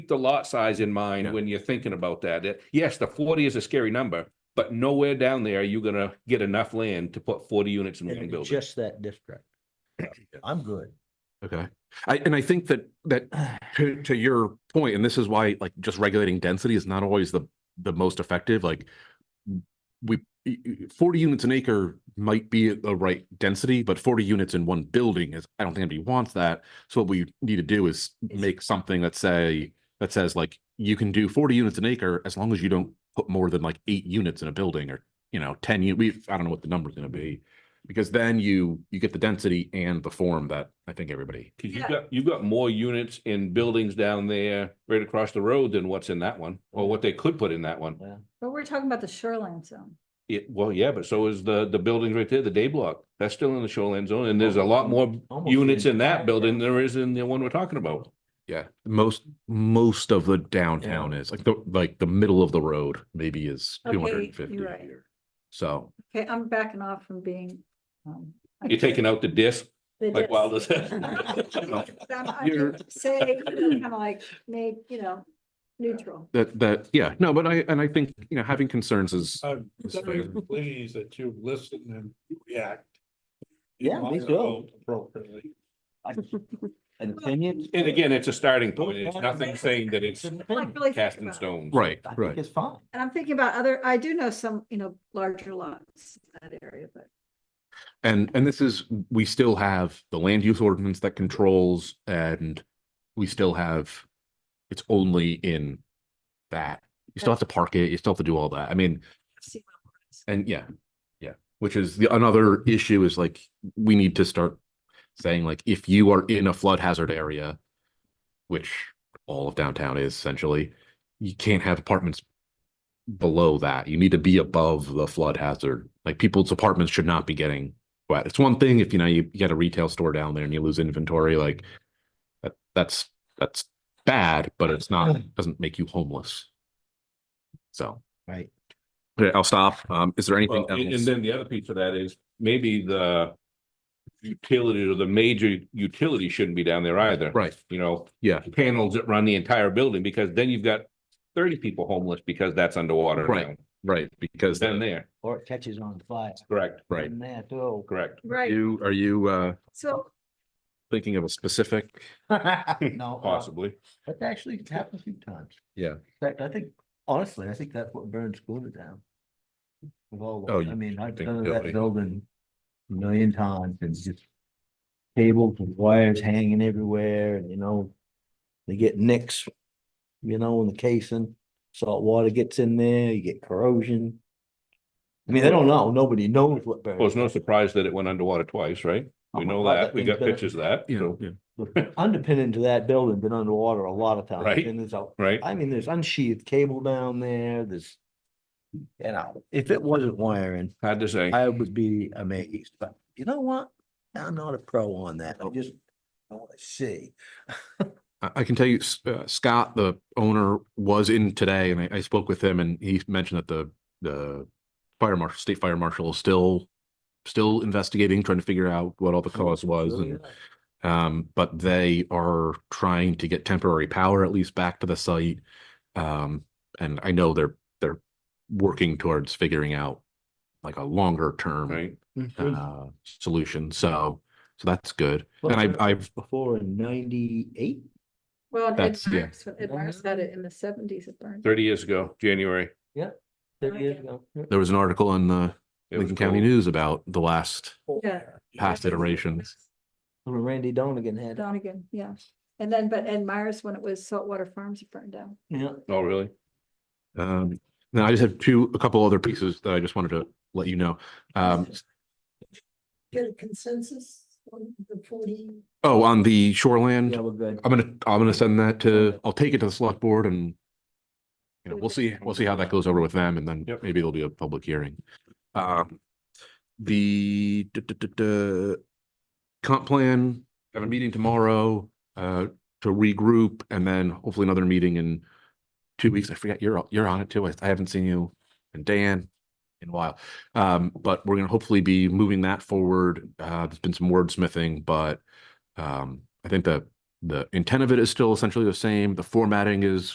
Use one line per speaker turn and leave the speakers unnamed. keep the lot size in mind
Yeah.
when you're thinking about that. It- Yes, the forty is a scary number, but nowhere down there you're gonna get enough land to put forty units in one
in
building.
just that district. I'm good.
Okay. I, and I think that, that to, to your point, and this is why like just regulating density is not always the, the most effective, like we, y- y- forty units an acre might be the right density, but forty units in one building is, I don't think anybody wants that. So what we need to do is make something that say, that says like, you can do forty units an acre as long as you don't put more than like eight units in a building or, you know, ten, u- we, I don't know what the number's gonna be. Because then you, you get the density and the form that I think everybody
Cause you've
Yeah.
got, you've got more units in buildings down there right across the road than what's in that one, or what they could put in that one.
But we're talking about the shoreline zone.
It, well, yeah, but so is the, the building right there, the day block. That's still in the shoreline zone and there's a lot more
Almost
units in
entire-
that building than there is in the one we're talking about.
Yeah, most, most of the downtown is like the, like the middle of the road maybe is
Okay,
two hundred
you're
and fifty.
right.
So,
Okay, I'm backing off from being. um, I
You're
can't-
taking out the disc.
the
like
dis-
Wilder said.
I'm- I'm
You're-
just Saying, kind of like, made, you know, neutral.
that, that, yeah, no, but I, and I think, you know, having concerns is,
I'm
It's
very
fair.
pleased that you listen and react.
Yeah, me
You
too.
vote Appropriately.
An opinion.
And again, it's a starting point. It's nothing saying that it's
an opinion.
Like, really
cast
think
in
about it.
stone.
right,
I think
right.
it's fine.
And I'm thinking about other, I do know some, you know, larger lots in that area, but
And, and this is, we still have the land use ordinance that controls and we still have, it's only in that. You still have to park it, you still have to do all that. I mean,
see what works.
And yeah, yeah, which is the another issue is like, we need to start saying like, if you are in a flood hazard area, which all of downtown is essentially, you can't have apartments below that. You need to be above the flood hazard. Like people's apartments should not be getting wet. It's one thing if, you know, you you get a retail store down there and you lose inventory, like that, that's, that's bad, but it's not, doesn't make you homeless. So.
Right.
Okay, I'll stop. Um, is there anything
Well, and, and
else?
then the other piece of that is maybe the utilities or the major utility shouldn't be down there either.
Right,
You know,
yeah,
panels that run the entire building because then you've got thirty people homeless because that's underwater.
Right.
now.
right, because
Then
then,
there,
Or it catches on fire.
correct,
right.
In there too.
correct.
Right,
You, are you, uh,
so
thinking of a specific?
No. uh,
Possibly.
That actually happened a few times.
Yeah.
In fact, I think, honestly, I think that's what burned Schooner down. With all,
Oh,
the- I
you
mean, I've
think
done
building.
that building a million times and just cables and wires hanging everywhere and, you know, they get nicks, you know, in the casing, salt water gets in there, you get corrosion. I mean, I don't know. Nobody knows what
Well, it's
burned.
no surprise that it went underwater twice, right? We
Oh my
know
God,
that.
that
We got
thing's been-
pictures of that.
You
So,
know,
The Underpinning to that building been underwater a lot of times.
Right.
And there's a
right?
I mean, there's unsheathed cable down there, there's. You know, if it wasn't wiring,
Hard to say.
I would be amazed, but you know what? I'm not a pro on that. I just, I wanna see.
I, I can tell you, S- uh, Scott, the owner, was in today and I, I spoke with him and he mentioned that the, the fire marshal, state fire marshal is still, still investigating, trying to figure out what all the cause was and Um, but they are trying to get temporary power at least back to the site. Um, and I know they're, they're working towards figuring out like a longer term,
Right?
Mm-hmm.
uh, solution. So, so that's good.
Well,
And I,
there-
I've,
Before in ninety-eight,
well, Ed
That's- yeah.
Myers, Ed Myers had it in the seventies it burned.
Thirty years ago, January.
thirty years
Okay.
ago.
there was an article in the
it was
Lincoln County
cold.
News about the last
Yeah.
past iterations.
When Randy Donegan had, it.
Donegan, yeah. And then, but Ed Myers, when it was Saltwater Farms, it burned down.
yeah,
Oh, really?
Um, now I just have two, a couple other pieces that I just wanted to let you know. Um,
get a consensus on the forty?
oh, on the shoreland.
yeah, we're good.
I'm gonna, I'm gonna send that to, I'll take it to the select board and. You know, we'll see, we'll see how that goes over with them and then
Yep.
maybe there'll be a public hearing. Um, the, duh, duh, duh, duh, Comp plan, have a meeting tomorrow, uh, to regroup and then hopefully another meeting in. Two weeks, I forget, you're, you're on it too, I I haven't seen you and Dan in a while. Um, but we're gonna hopefully be moving that forward. Uh, there's been some wordsmithing, but. Um, I think the The intent of it is still essentially the same. The formatting is